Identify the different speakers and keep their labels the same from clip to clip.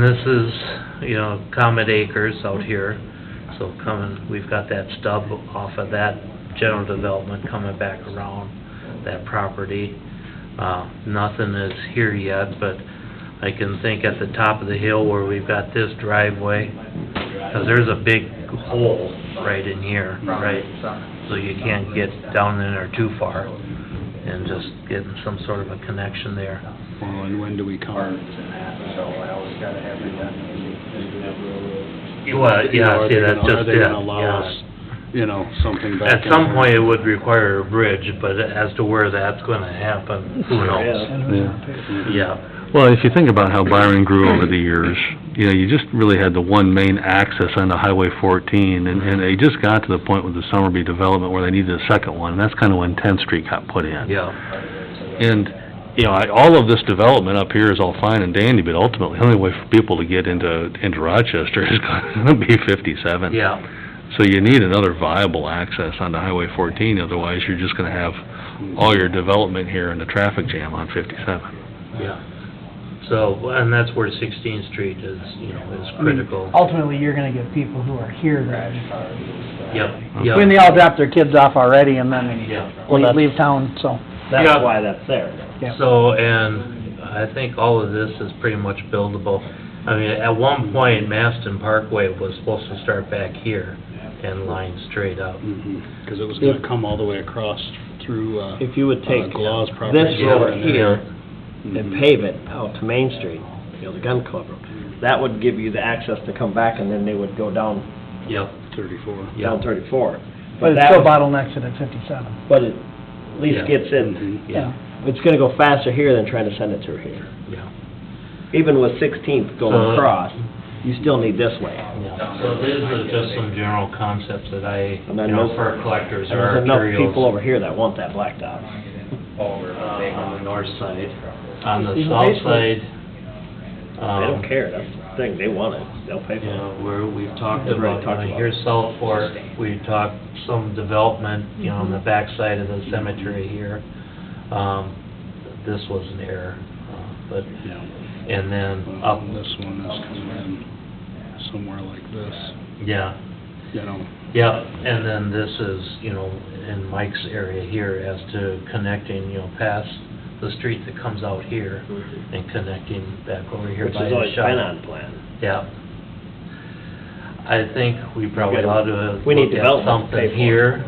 Speaker 1: This is, you know, Comet Acres out here, so coming, we've got that stub off of that general development coming back around that property. Uh, nothing is here yet, but I can think at the top of the hill where we've got this driveway, 'cause there's a big hole right in here, right? So you can't get down in there too far, and just getting some sort of a connection there.
Speaker 2: Well, and when do we come?
Speaker 3: So I always gotta have it done.
Speaker 1: Well, yeah, see, that's just
Speaker 2: Are
Speaker 1: it,
Speaker 2: they gonna allow
Speaker 1: yeah.
Speaker 2: us, you know, something back?
Speaker 1: At
Speaker 2: in
Speaker 1: some
Speaker 2: there?
Speaker 1: point, it would require a bridge, but as to where that's gonna happen, who knows? Yeah,
Speaker 4: Well, if you think about how Byron grew over the years, you know, you just really had the one main access onto Highway fourteen, and, and they just got to the point with the Summerby development where they needed a second one, and that's kinda when Tenth Street got put in.
Speaker 1: yeah,
Speaker 4: And, you know, I, all of this development up here is all fine and dandy, but ultimately, the only way for people to get into, into Rochester is gonna be fifty-seven.
Speaker 1: yeah,
Speaker 4: So you need another viable access onto Highway fourteen, otherwise you're just gonna have all your development here and a traffic jam on fifty-seven.
Speaker 1: yeah. So, and that's where Sixteenth Street is, you know, is
Speaker 5: I mean,
Speaker 1: critical.
Speaker 5: Ultimately, you're gonna get people who are here that,
Speaker 1: Yep,
Speaker 5: when they
Speaker 1: yep,
Speaker 5: all drop their kids off already and then
Speaker 1: yeah.
Speaker 6: Well,
Speaker 5: leave,
Speaker 6: that's-
Speaker 5: leave town, so.
Speaker 1: Yeah.
Speaker 6: That's why that's there.
Speaker 5: yeah.
Speaker 1: So, and I think all of this is pretty much buildable. I mean, at one point, Maston Parkway was supposed to start back here and line straight up.
Speaker 2: Mhm, 'cause it was gonna come all the way across through, uh,
Speaker 6: If you would
Speaker 2: uh,
Speaker 6: take
Speaker 2: Glaw's
Speaker 6: this
Speaker 2: property.
Speaker 6: road
Speaker 2: and
Speaker 6: here
Speaker 2: there.
Speaker 6: and
Speaker 2: Mhm.
Speaker 6: pave it out to Main Street, you know, the gun club road, that would give you the access to come back and then they would go down,
Speaker 1: Yep,
Speaker 2: Thirty-four.
Speaker 6: down
Speaker 1: yep,
Speaker 6: thirty-four.
Speaker 5: But it's
Speaker 6: that
Speaker 5: still
Speaker 6: would-
Speaker 5: bottlenecked at fifty-seven.
Speaker 6: But it at
Speaker 1: Yeah. Mm-hmm.
Speaker 6: least gets in,
Speaker 2: Mhm.
Speaker 1: yeah,
Speaker 6: it's gonna go faster here than trying to send it through here.
Speaker 1: yeah.
Speaker 6: Even with Sixteenth
Speaker 1: So-
Speaker 6: going across, you still need this way.
Speaker 1: So these are just some general concepts that I, you
Speaker 6: And I
Speaker 1: know,
Speaker 6: know-
Speaker 1: for collectors or
Speaker 6: There's
Speaker 1: our
Speaker 6: enough people
Speaker 1: curios
Speaker 6: over here that want that blacktop.
Speaker 1: uh, on the north side. On the
Speaker 5: Even
Speaker 1: south
Speaker 5: basement.
Speaker 1: side,
Speaker 6: They
Speaker 1: um,
Speaker 6: don't care, that's the thing, they want it, they'll pay
Speaker 1: you
Speaker 6: for it.
Speaker 1: know, where we've talked
Speaker 6: We've already
Speaker 1: about,
Speaker 6: talked
Speaker 1: you know,
Speaker 6: about
Speaker 1: here
Speaker 6: it.
Speaker 1: south fork, we talked some development, you know, on the
Speaker 6: Mhm.
Speaker 1: backside of the cemetery here. Um, this was an error, uh, but,
Speaker 2: Yeah.
Speaker 1: and then up,
Speaker 2: Well, This one is coming in somewhere like this,
Speaker 1: yeah,
Speaker 2: you know,
Speaker 1: Yep, and then this is, you know, in Mike's area here as to connecting, you know, past the street that comes out here and connecting back over here
Speaker 6: Mm-hmm. Which
Speaker 1: by
Speaker 6: has
Speaker 1: the
Speaker 6: always
Speaker 1: shop.
Speaker 6: been on plan.
Speaker 1: Yep. I think we probably
Speaker 6: gotta-
Speaker 1: ought to
Speaker 6: we need
Speaker 1: look at
Speaker 6: development to pay
Speaker 1: something
Speaker 6: for it.
Speaker 1: here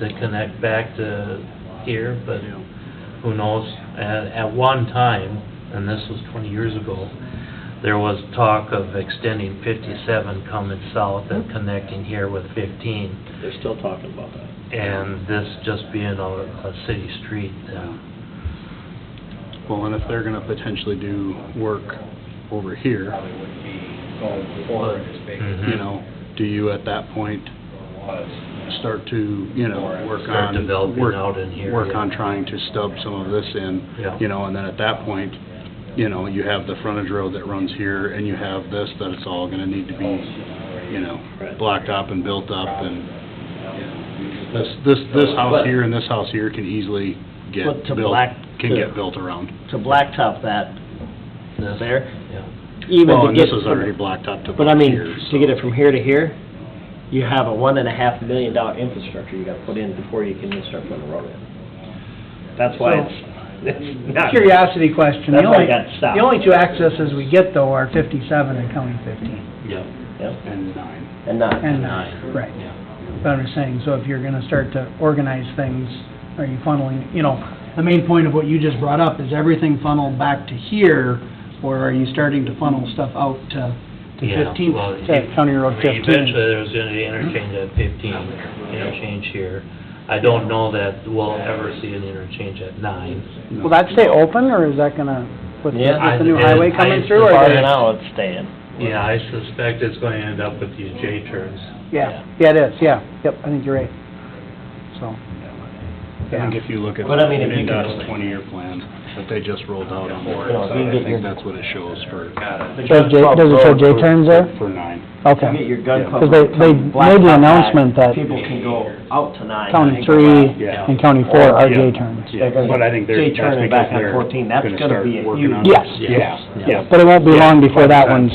Speaker 1: to connect back to here, but who knows? At, at one time, and this was twenty years ago, there was talk of extending fifty-seven coming south and
Speaker 6: Mm-hmm.
Speaker 1: connecting here with fifteen.
Speaker 6: They're still talking about that.
Speaker 1: And this just being a, a city street, uh,
Speaker 2: well, and if they're gonna potentially do work over here,
Speaker 3: Probably would be going forward as big as
Speaker 1: Mhm.
Speaker 6: Mm-hmm.
Speaker 2: you know, do you at that point
Speaker 3: it was.
Speaker 2: start to, you know, work on...
Speaker 1: Start developing
Speaker 2: work-
Speaker 1: out in here,
Speaker 2: Work
Speaker 1: yeah.
Speaker 2: on trying to stub some of this in.
Speaker 1: Yeah.
Speaker 2: You know, and then at that point, you know, you have the frontage road that runs here, and you have this, that it's all gonna need to be, you know,
Speaker 6: Right.
Speaker 2: blocked up and built up, and this, this, this house
Speaker 6: But-
Speaker 2: here and this house here can easily get
Speaker 6: But to
Speaker 2: built,
Speaker 6: black-
Speaker 2: can
Speaker 6: to-
Speaker 2: get built around.
Speaker 6: To blacktop that
Speaker 1: this.
Speaker 6: there,
Speaker 1: Yeah.
Speaker 6: even
Speaker 2: Well,
Speaker 6: to
Speaker 2: and
Speaker 6: get...
Speaker 2: this is
Speaker 6: from-
Speaker 2: already blocked up to
Speaker 6: But I
Speaker 2: about
Speaker 6: mean,
Speaker 2: here,
Speaker 6: to
Speaker 2: so...
Speaker 6: get it from here to here, you have a one and a half million dollar infrastructure you gotta put in before you can even start putting a road in. That's why it's, it's not...
Speaker 5: Curiosity question, the
Speaker 6: That's why
Speaker 5: only,
Speaker 6: it got stopped.
Speaker 5: the only two accesses we get though are fifty-seven and County fifteen,
Speaker 1: Yep.
Speaker 6: Yep,
Speaker 2: And nine.
Speaker 6: And not,
Speaker 5: and
Speaker 1: Nine.
Speaker 5: nine, right.
Speaker 1: Yeah.
Speaker 5: But I'm just saying, so if you're gonna start to organize things, are you funneling, you know, the main point of what you just brought up, is everything funneled back to here, or are you starting to funnel stuff out to, to
Speaker 1: Yeah,
Speaker 5: fifteen,
Speaker 1: well,
Speaker 5: to County Road
Speaker 1: I mean, Eventually,
Speaker 5: fifteen?
Speaker 1: there's gonna be interchange at fifteen, Mm-hmm. interchange here. I don't know that we'll ever see an interchange at nine.
Speaker 2: No.
Speaker 5: Will that stay open, or is that gonna, with the,
Speaker 6: Yeah.
Speaker 5: with the new highway coming through,
Speaker 6: as
Speaker 5: or?
Speaker 6: far as now, it's staying.
Speaker 1: Yeah, I suspect it's gonna end up with these J turns.
Speaker 5: Yeah, yeah, it is, yeah, yep, I think you're right, so.
Speaker 2: I
Speaker 5: Yeah.
Speaker 2: think if you look at
Speaker 6: But I mean, if you
Speaker 2: NDOT's
Speaker 6: could-
Speaker 2: twenty-year plan that they just rolled out on
Speaker 6: You know, if you
Speaker 2: board,
Speaker 6: get
Speaker 2: I
Speaker 6: your-
Speaker 2: think that's what it shows for,
Speaker 5: Does J, does it show J turns there?
Speaker 2: for nine.
Speaker 6: You get
Speaker 5: Okay,
Speaker 6: your gun
Speaker 2: Yeah.
Speaker 6: club
Speaker 5: Because they-
Speaker 6: road
Speaker 5: they
Speaker 6: coming
Speaker 5: made the
Speaker 6: blacktop back,
Speaker 5: announcement that
Speaker 6: People can go out to nine.
Speaker 5: County
Speaker 6: and go
Speaker 5: three
Speaker 6: out.
Speaker 2: Yeah.
Speaker 5: and County four are J turns.
Speaker 2: Yeah, but I think they're,
Speaker 6: J-turn
Speaker 2: that's
Speaker 6: and
Speaker 2: because
Speaker 6: back on
Speaker 2: they're
Speaker 6: 14, that's
Speaker 2: gonna
Speaker 6: gonna
Speaker 2: start
Speaker 6: be a
Speaker 2: working on.
Speaker 5: huge- Yes.
Speaker 2: Yeah, yeah.
Speaker 5: But it won't be long before that one's